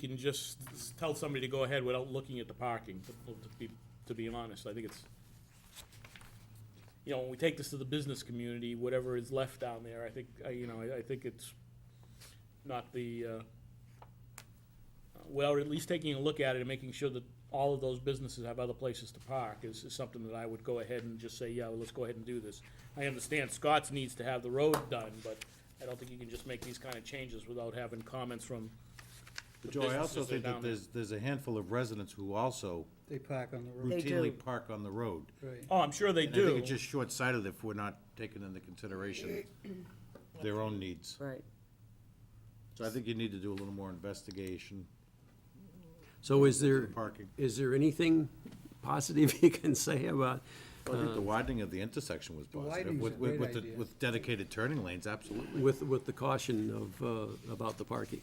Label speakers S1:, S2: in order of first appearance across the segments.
S1: can just s- tell somebody to go ahead without looking at the parking, to to be, to be honest, I think it's, you know, when we take this to the business community, whatever is left down there, I think, I- you know, I, I think it's not the, uh, well, at least taking a look at it and making sure that all of those businesses have other places to park is, is something that I would go ahead and just say, yeah, well, let's go ahead and do this. I understand Scott's needs to have the road done, but I don't think you can just make these kind of changes without having comments from the
S2: Joe, I also
S1: businesses that are
S2: think that
S1: down there.
S2: there's, there's a handful of residents who also
S3: They park on the road,
S4: They
S2: routinely
S4: do.
S2: park on the road.
S3: right.
S1: Oh, I'm sure they
S2: And I think
S1: do.
S2: it's just short-sighted if we're not taking into consideration their own needs.
S4: Right.
S2: So I think you need to do a little more investigation,
S5: So is there,
S2: parking.
S5: is there anything positive you can say about,
S2: I think
S1: Uh-huh.
S2: the widening of the intersection was positive,
S3: widening's
S2: with,
S3: a
S2: with,
S3: great
S2: with the-
S3: idea.
S2: with dedicated turning lanes, absolutely.
S5: with, with the caution of, uh, about the parking?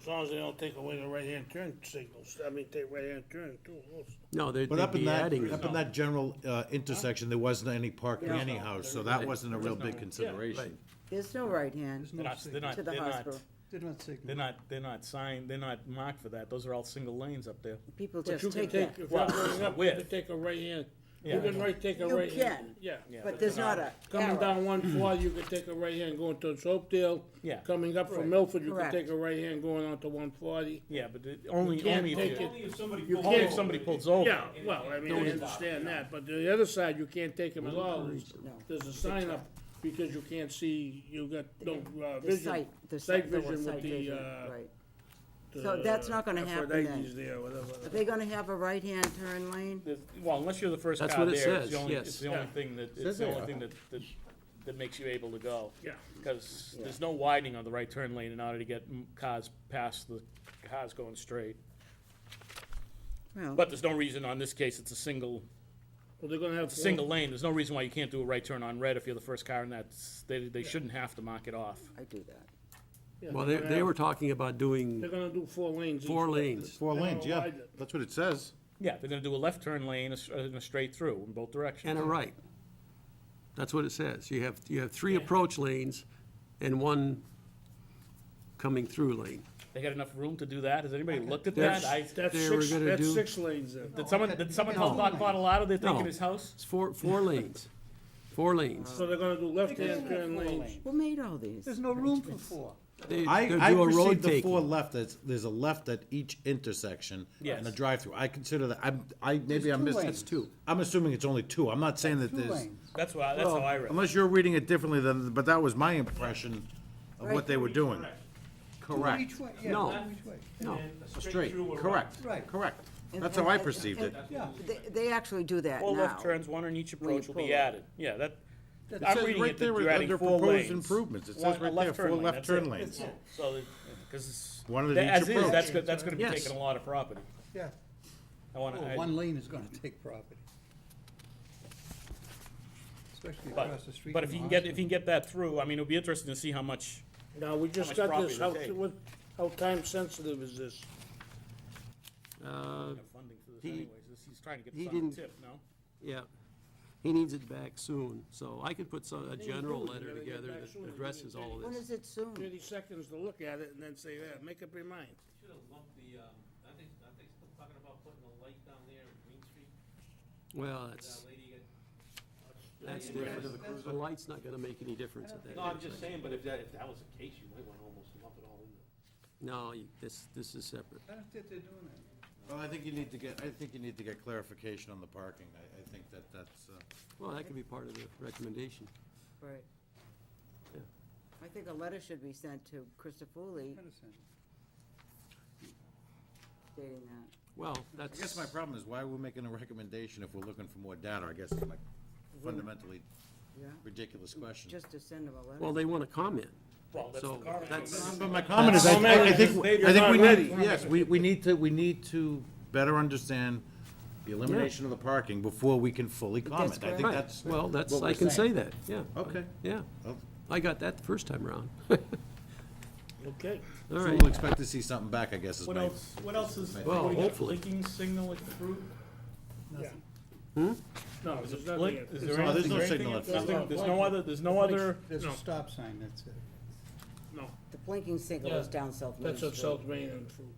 S6: As long as they don't take away the right-hand turn signals, I mean, take right-hand turn too. also.
S5: No, they'd
S2: But
S5: they'd
S2: up in
S5: be
S2: that,
S5: adding,
S2: up in that general, uh, intersection, there wasn't any parking anyhow, so that wasn't a real big consideration.
S4: There's no right hand
S1: They're not, they're not,
S4: to the
S1: they're not,
S4: hospital.
S3: Did not
S1: they're
S3: signal.
S1: not, they're not signed, they're not marked for that. Those are all single lanes up there.
S4: People
S6: But you
S4: just
S6: can
S4: take
S6: take,
S4: that.
S6: if
S1: Well,
S6: I'm going up, you
S1: with.
S6: can take a right-hand, you
S1: Yeah.
S6: can right, take a
S4: You
S6: right-hand.
S4: can.
S6: Yeah.
S4: But there's not a
S6: Coming
S4: arrow.
S6: down one four, you can take a right-hand going towards Hopedale.
S1: Yeah.
S6: Coming up from Milford, you can
S4: Correct.
S6: take a right-hand going onto one forty.
S1: Yeah, but it- only,
S6: can't
S1: only
S6: take
S1: if
S6: it.
S1: you,
S7: If somebody
S6: You
S1: only if
S6: can't-
S1: somebody pulls over.
S6: Yeah, well, I mean, I understand that, but the other side, you can't take them at all. There's-
S4: No.
S6: There's a sign up because you can't see, you got no
S4: The
S6: uh, vision.
S4: sight, the
S6: Sight
S4: sight, the
S6: vision with
S4: sight
S6: the,
S4: vision,
S6: uh,
S4: right.
S6: the
S4: So that's not gonna happen then.
S6: Aphrodite's there, whatever.
S4: Are they gonna have a right-hand turn lane?
S1: There's- Well, unless you're the first
S5: That's
S1: car
S5: what it
S1: there, it's
S5: says,
S1: the only,
S5: yes.
S1: it's the only thing that, it's
S2: Says
S1: the
S2: they
S1: only
S2: are.
S1: thing that, that, that makes you able to go.
S6: Yeah.
S1: Because there's no widening on the right turn lane in order to get m- cars past the cars going straight.
S4: Well,
S1: But there's no reason on this case, it's a single,
S6: Well, they're gonna have.
S1: it's a single lane. There's no reason why you can't do a right turn on red if you're the first car and that's, they, they shouldn't have to mark it off.
S4: I do that.
S6: Yeah,
S5: well, they,
S6: they're gonna
S5: they
S6: have-
S5: were talking about
S6: They're
S5: doing
S6: gonna do four lanes. each
S5: four
S6: way.
S5: lanes.
S2: Four
S6: They're
S2: lanes,
S6: gonna
S2: yeah,
S6: widen it.
S2: that's what it says.
S1: Yeah, they're gonna do a left turn lane, a s- and a straight through in both directions.
S5: And a right. That's what it says. You have, you have three approach lanes and one coming through lane.
S1: They got enough room to do that? Has anybody looked at
S5: That's-
S1: that? I,
S6: That's
S5: They were
S6: six,
S5: gonna
S6: that's
S5: do-
S6: six lanes then.
S1: did someone, did someone help Doc Bottalato? They're taking his house?
S5: It's four, four lanes, four lanes.
S6: So they're gonna do left-hand turn lanes.
S4: Who made all these?
S3: There's no room for four.
S5: They,
S2: I,
S5: they'll
S2: I
S5: do a road
S2: perceive the four
S5: taking.
S2: left, as there's a left at each intersection and a
S1: Yes.
S2: drive-through. I consider that, I'm, I, maybe I'm
S3: two
S2: missing.
S3: lanes. That's
S5: two.
S2: I'm assuming it's only two. I'm not saying that
S3: Two
S2: there's,
S3: lanes.
S1: That's why, that's how I read it.
S2: unless you're reading it differently than, but that was my impression of what they were doing.
S3: Two
S2: Correct,
S3: each way, yeah,
S5: No.
S3: two each way.
S5: No,
S2: straight, correct,
S3: Right.
S2: correct.
S4: And-
S2: That's how I
S4: and-
S2: perceived it.
S4: and-
S3: Yeah.
S4: They, they actually do that now.
S1: Four left turns, one on each
S4: When you
S1: approach will be
S4: pull up.
S1: added. Yeah, that,
S2: It
S1: I'm
S2: says
S1: reading
S2: right
S1: it that
S2: there
S1: you're adding
S2: under
S1: four
S2: proposed
S1: lanes.
S2: improvements. It says
S1: One-
S2: right
S1: a left
S2: there,
S1: turn
S2: four
S1: lane,
S2: left
S1: that's
S2: turn
S1: it.
S2: lanes. That's
S1: so, because it's.
S2: One of
S1: that-
S2: each
S1: As is,
S2: approach.
S1: that's, go- that's gonna be
S5: Yes.
S1: taking a lot of property.
S3: Yeah.
S1: I wanna,
S3: Well,
S1: I,
S3: Oh, One lane is gonna take property. Especially
S1: but,
S3: across the street.
S1: but if
S3: from
S1: you can
S3: the
S1: get, if you can get that through, I mean, it'll be interesting to see how much,
S6: Now, we just
S1: much
S6: got
S1: property
S6: this,
S1: they
S6: how,
S1: take.
S6: what, how time sensitive is this?
S1: you know, funding for this anyways. This- He's trying to get
S5: he
S1: this on the
S5: didn't-
S1: tip, no?
S5: yeah. He needs it back soon, so I could put some, a general
S6: do, you
S5: letter
S6: gotta get
S5: together
S6: back soon,
S5: that
S6: you
S5: addresses
S6: gotta
S5: all of
S4: When
S5: this.
S4: is it soon?
S6: Thirty seconds to look at it and then say, yeah, make up your mind.
S7: Should have lumped the, um, I think, I think, still talking about putting a light down there in Green Street,
S5: Well,
S7: that
S5: that's,
S7: lady got.
S5: that's different. The light's not gonna make any difference at that.
S7: No, I'm just
S5: intersection.
S7: saying, but if that, if that was the case, you might wanna almost lump it all in there.
S5: No, you- this, this is separate.
S3: I don't think they're doing that.
S2: Well, I think you need to get, I think you need to get clarification on the parking. I, I think that that's, uh,
S5: Well, that could be part of the recommendation.
S4: Right.
S5: Yeah.
S4: I think a letter should be sent to Christopherly
S3: Medicine.
S4: stating that.
S5: Well,
S2: I
S5: that's.
S2: guess my problem is why we're making a recommendation if we're looking for more data, I guess, is my fundamentally
S4: Yeah.
S2: ridiculous question.
S4: Just to send them a letter.
S5: Well, they want to comment.
S1: Well, that's the
S5: So
S1: car.
S5: that's,
S2: But my comment is, I, I I think, I think we need, yes, we, we need to, we need to better understand the elimination of the parking before we can fully comment. I think
S5: right.
S2: that's.
S5: Well, that's,
S2: what
S5: I
S2: we're
S5: can say
S2: saying.
S5: that, yeah.
S2: Okay.
S5: Yeah.
S2: Well,
S5: I got that the first time around.
S6: Okay.
S5: All
S2: So
S5: right.
S2: we'll expect to see something back, I guess, is
S1: What
S2: my,
S1: else, what else is,
S5: Well,
S1: what do you got,
S5: hopefully.
S1: blinking signal at the fruit?
S5: Hmm?
S6: No, there's nothing.
S1: Blink,
S6: else.
S1: is there
S2: No, there's
S1: anything,
S2: no
S1: or anything?
S2: signal at
S1: else?
S2: the
S1: Nothing- There's no other, there's no other.
S3: There's
S6: No.
S3: a stop sign, that's it.
S6: No,
S4: The blinking signal
S6: Yeah.
S4: is down South Main
S6: that's
S4: Street.
S6: what South Main and food.